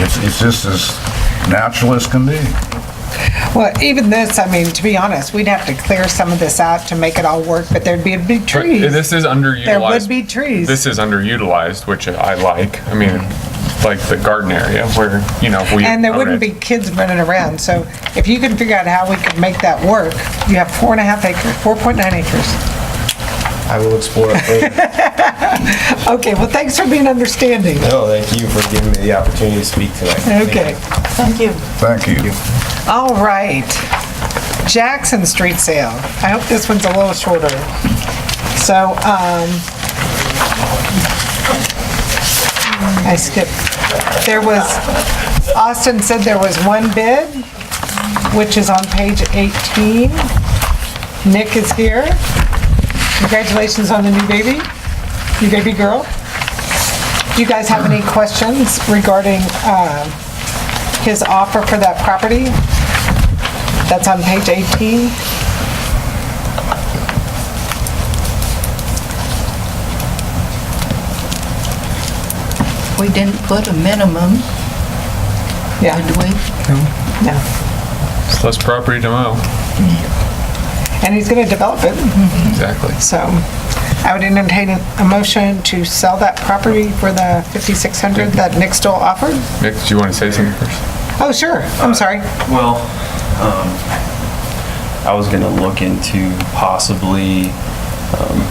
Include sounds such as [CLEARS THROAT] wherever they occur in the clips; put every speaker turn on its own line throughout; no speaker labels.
It's, it's just as natural as can be.
Well, even this, I mean, to be honest, we'd have to clear some of this out to make it all work, but there'd be a big
But
tree.
This is underutilized.
There would be trees.
This is underutilized, which I like. I mean, like the garden area where, you know, we.
And there
own
wouldn't
it.
be kids running around, so if you can figure out how we could make that work, you have four and a half acres, 4.9 acres.
I will explore it further.
Okay, well, thanks for being understanding.
No, thank you for giving me the opportunity to speak tonight. Thank you.
Okay,
Thank you.
Thank you.
all right. Jackson Street Sale. I hope this one's a little shorter. So, um, I skipped. There was, Austin said there was one bid, which is on page 18. Nick is here. Congratulations on the new baby, new baby girl. Do you guys have any questions regarding um, his offer for that property? That's on page 18.
We didn't put a minimum,
Yeah,
did we?
yeah.
It's Less property to mow.
And he's going to develop it,
Exactly.
so I would entertain a motion to sell that property for the 5,600 that Nick Stoll offered.
Nick, do you want to say something first?
Oh, sure,
Uh,
I'm sorry.
Well, um, I was gonna look into possibly, um,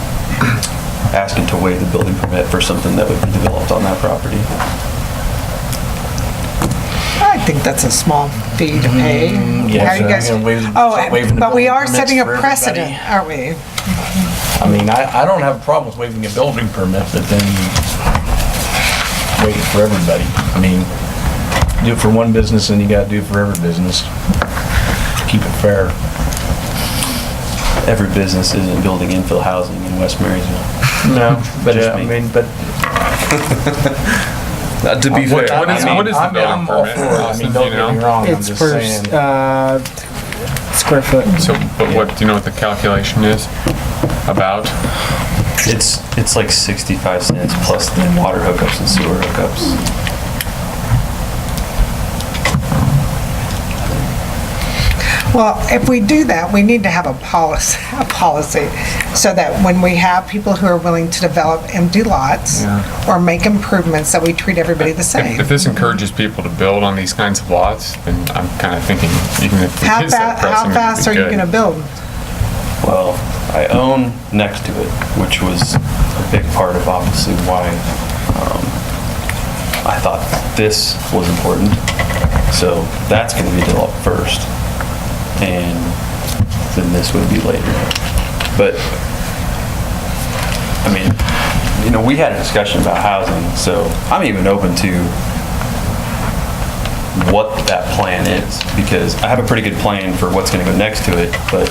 [CLEARS THROAT] asking to waive the building permit for something that would be developed on that property.
I think that's a small fee to pay.
Mm,
How you guys?
gonna waive- start waiving
Oh,
the
but we
building
are
permits
setting a
for everybody.
precedent, aren't we?
I mean, I, I don't have a problem with waiving a building permit, but then wait for everybody. I mean, do it for one business and you gotta do it for every business. Keep it fair.
Every business isn't building infill housing in West Marysville.
No,
but, uh, I mean,
[LAUGHS]
but.
To be fair.
What is, what is the
I'm-
building
I'm all
permit,
for it. I
Austin,
mean,
do you
don't get me
know?
wrong, I'm
It's
just
per,
saying.
uh, square foot.
So, but what, do you know what the calculation is about?
It's, it's like 65 cents plus the water hookups and sewer hookups.
Well, if we do that, we need to have a policy, [LAUGHS] a policy, so that when we have people who are willing to develop empty lots or make improvements, that we treat everybody the
If
same.
if this encourages people to build on these kinds of lots, then I'm kind of thinking, even if it
How
is that
fast, how
pressing, it'd
fast
be
are you
good.
gonna build?
Well, I own next to it, which was a big part of obviously why um, I thought this was important. So that's going to be developed first, and then this would be later. But, I mean, you know, we had a discussion about housing, so I'm even open to what that plan is, because I have a pretty good plan for what's gonna go next to it, but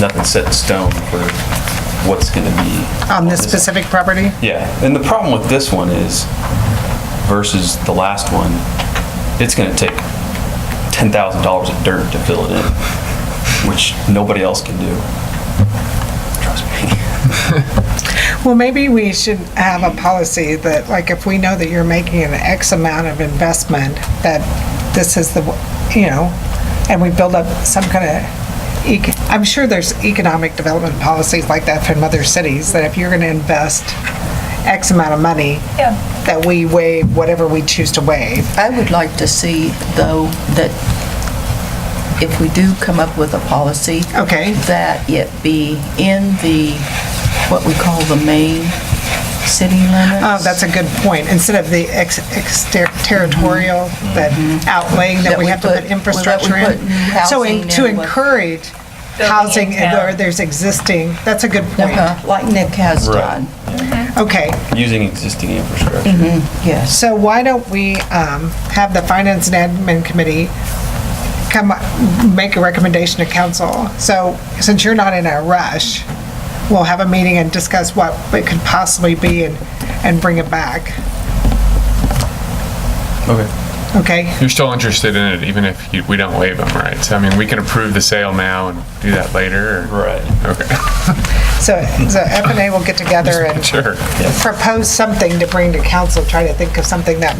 nothing's set in stone for what's gonna be.
On this specific property?
Yeah, and the problem with this one is versus the last one, it's gonna take ten thousand dollars of dirt to fill it in, which nobody else can do. Trust me. [LAUGHS]
Well, maybe we should have a policy that, like, if we know that you're making an X amount of investment, that this is the, you know, and we build up some kind of, ec- I'm sure there's economic development policies like that from other cities, that if you're going to invest X amount of money, that we waive whatever we choose to waive.
I would like to see, though, that if we do come up with a policy.
Okay.
That it be in the, what we call the main city limits.
Oh, that's a good point. Instead of the ex- extraterritorial, that outlaying that
Mm-hmm. That
we
we
have to put
put-
infrastructure
well, that we
in.
put
So in-
housing
to
and what-
encourage housing where there's existing, that's a good point.
Uh-huh, Like Nick has done, Uh-huh.
Okay,
Using existing infrastructure.
yes.
so why don't we um, have the Finance and Admin Committee come, up- make a recommendation to council? So since you're not in a rush, we'll have a meeting and discuss what it could possibly be and, and bring it back,
Okay.
okay?
You're still interested in it, even if you- we don't waive them, right? So I mean, we can approve the sale now and do that later, or?
Right.
Okay, [LAUGHS]
So, so F and A will get together and
sure.
propose something to bring to council, try to think of something that